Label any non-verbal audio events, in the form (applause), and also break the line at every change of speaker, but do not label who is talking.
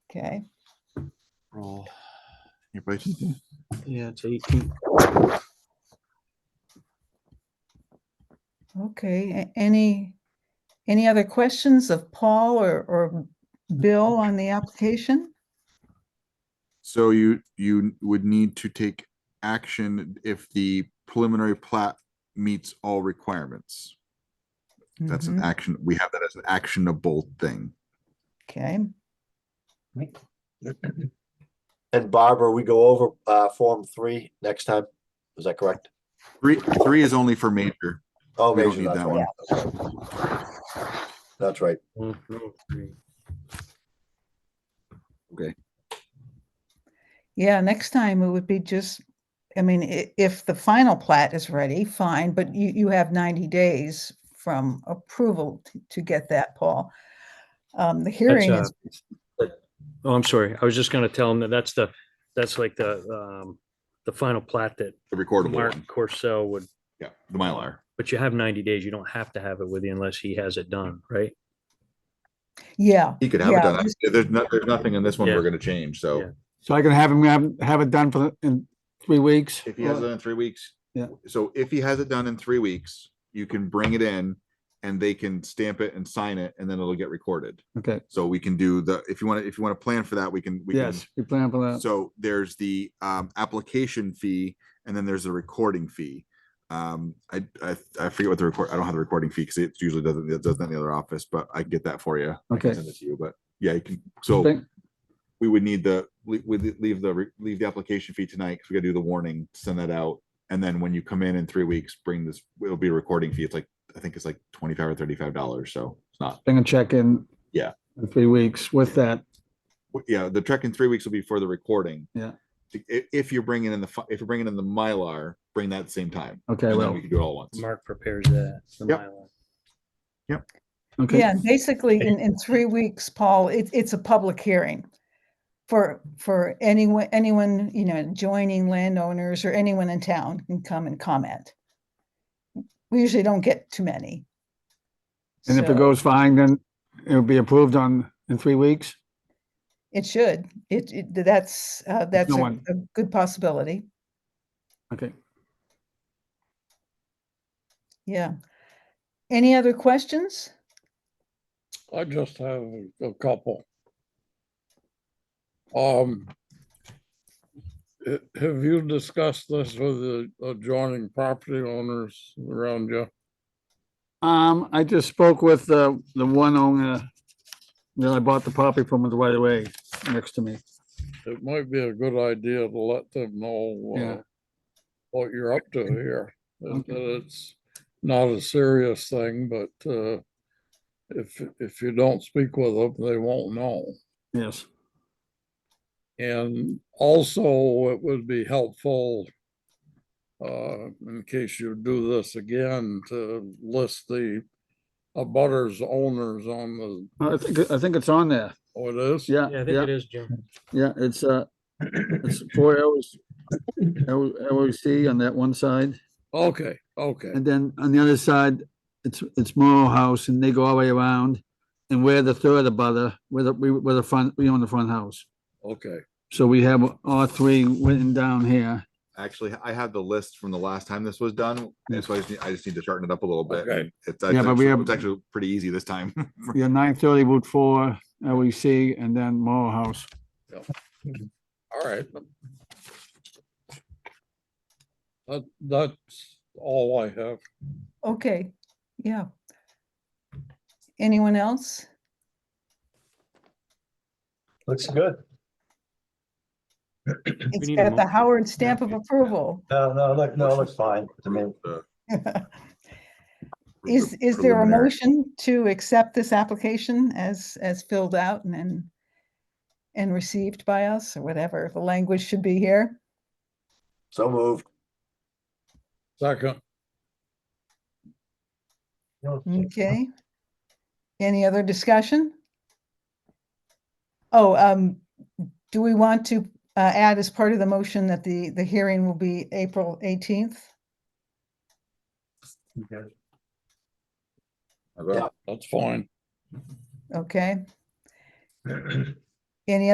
Okay,
Roll. You're both
Yeah, it's 18.
okay. A- Any, any other questions of Paul or, or Bill on the application?
So you, you would need to take action if the preliminary plat meets all requirements. That's an
Mhm,
action, we have that as an actionable thing.
Okay,
And Barbara, we go over uh Form Three next time. Is that correct?
Three, three is only for major.
Oh,
We don't
Rachel,
need
that's
that
right.
one.
That's right.
mm-hmm.
yeah, next time it would be just, I mean, i- if the final plat is ready, fine, but you, you have ninety days from approval to- to get that, Paul. Um, the hearing
uh,
is,
Oh, I'm sorry. I was just gonna tell him that that's the, that's like the, um, the final plat that
The recordable
Mark
one.
Corso would,
Yeah, the Mylar.
but you have ninety days. You don't have to have it with you unless he has it done, right?
yeah,
He could have it
Yeah,
done. There's not, there's nothing in this one
Yeah.
we're gonna change,
Yeah.
so.
So I can have him have, have it done for the, in three weeks.
If he has it in three weeks.
Yeah.
So if he has it done in three weeks, you can bring it in and they can stamp it and sign it and then it'll get recorded.
Okay,
So we can do the, if you want to, if you want to plan for that, we can, we can
yes, we plan for that.
So there's the um, application fee and then there's a recording fee. Um, I, I, I forget what the record, I don't have the recording fee because it usually doesn't, it doesn't in the other office, but I can get that for you. I can
Okay.
Send it to you, but yeah, you can, so
Thank-
we would need the, we, we leave the, re- leave the application fee tonight because we gotta do the warning, send that out. And then when you come in in three weeks, bring this, it'll be a recording fee. It's like, I think it's like twenty-five or thirty-five dollars, so it's not.
Then a check in.
Yeah.
In three weeks with that.
w- yeah, the trek in three weeks will be for the recording.
Yeah.
To- i- If, you're bringing in the, fi- if you're bringing in the Mylar, bring that same time.
Okay,
And then
well,
we can do it all at once.
Mark prepares that. the
Yep.
Mylar.
okay,
yeah, basically in, in three weeks, Paul, it, it's a public hearing. For, for anyone, anyone, you know, joining landowners or anyone in town can come and comment. We usually don't get too many.
and if
So
it goes fine, then it'll be approved on, in three weeks?
It should, it, it- that's, uh, that's
no
a
one-
a good possibility,
Okay,
yeah. Any other questions?
I just have a couple. Um. h- Have you discussed this with the adjoining property owners around you?
um, I just spoke with the, the one owner that I bought the property from was right away next to me.
It might be a good idea to let them know.
Yeah.
uh, What you're up to here, that
Okay.
that it's not a serious thing, but, uh. If, if you don't speak with them, they won't know.
Yes,
And also, it would be helpful, uh, in case you do this again, to list the abutters owners on the,
I think, I think it's on there.
oh, it is?
Yeah,
Yeah, I think
yeah,
it is, Jim.
yeah, it's, uh, it's four hours. LOC on that one side.
Okay, okay,
And then on the other side, it's, it's Morrow House and they go all the way around. And we're the third abutter, we're the, we, we're the front, we own the front house.
okay.
So we have all three written down here.
Actually, I have the list from the last time this was done, and so I just, need- I just need to shorten it up a little bit.
Okay.
It's,
Yeah, but
actually-
we have-
it's actually pretty easy this time. (laughs)
We have nine thirty Route four, LEC, and then Morrow House.
All right. That, that's all I have.
Okay, yeah. Anyone else?
Looks good.
It's
need a
got the
motion.
Howard stamp of approval. (laughs)
No, no, look, no, it looks fine to me.
Uh,
Is, is there a
preliminary.
motion to accept this application as, as filled out and and and received by us or whatever? The language should be here.
So moved.
Second,
Okay. Any other discussion? Oh, um, do we want to uh, add as part of the motion that the, the hearing will be April 18th?
I vote.
that's fine.
Okay. Any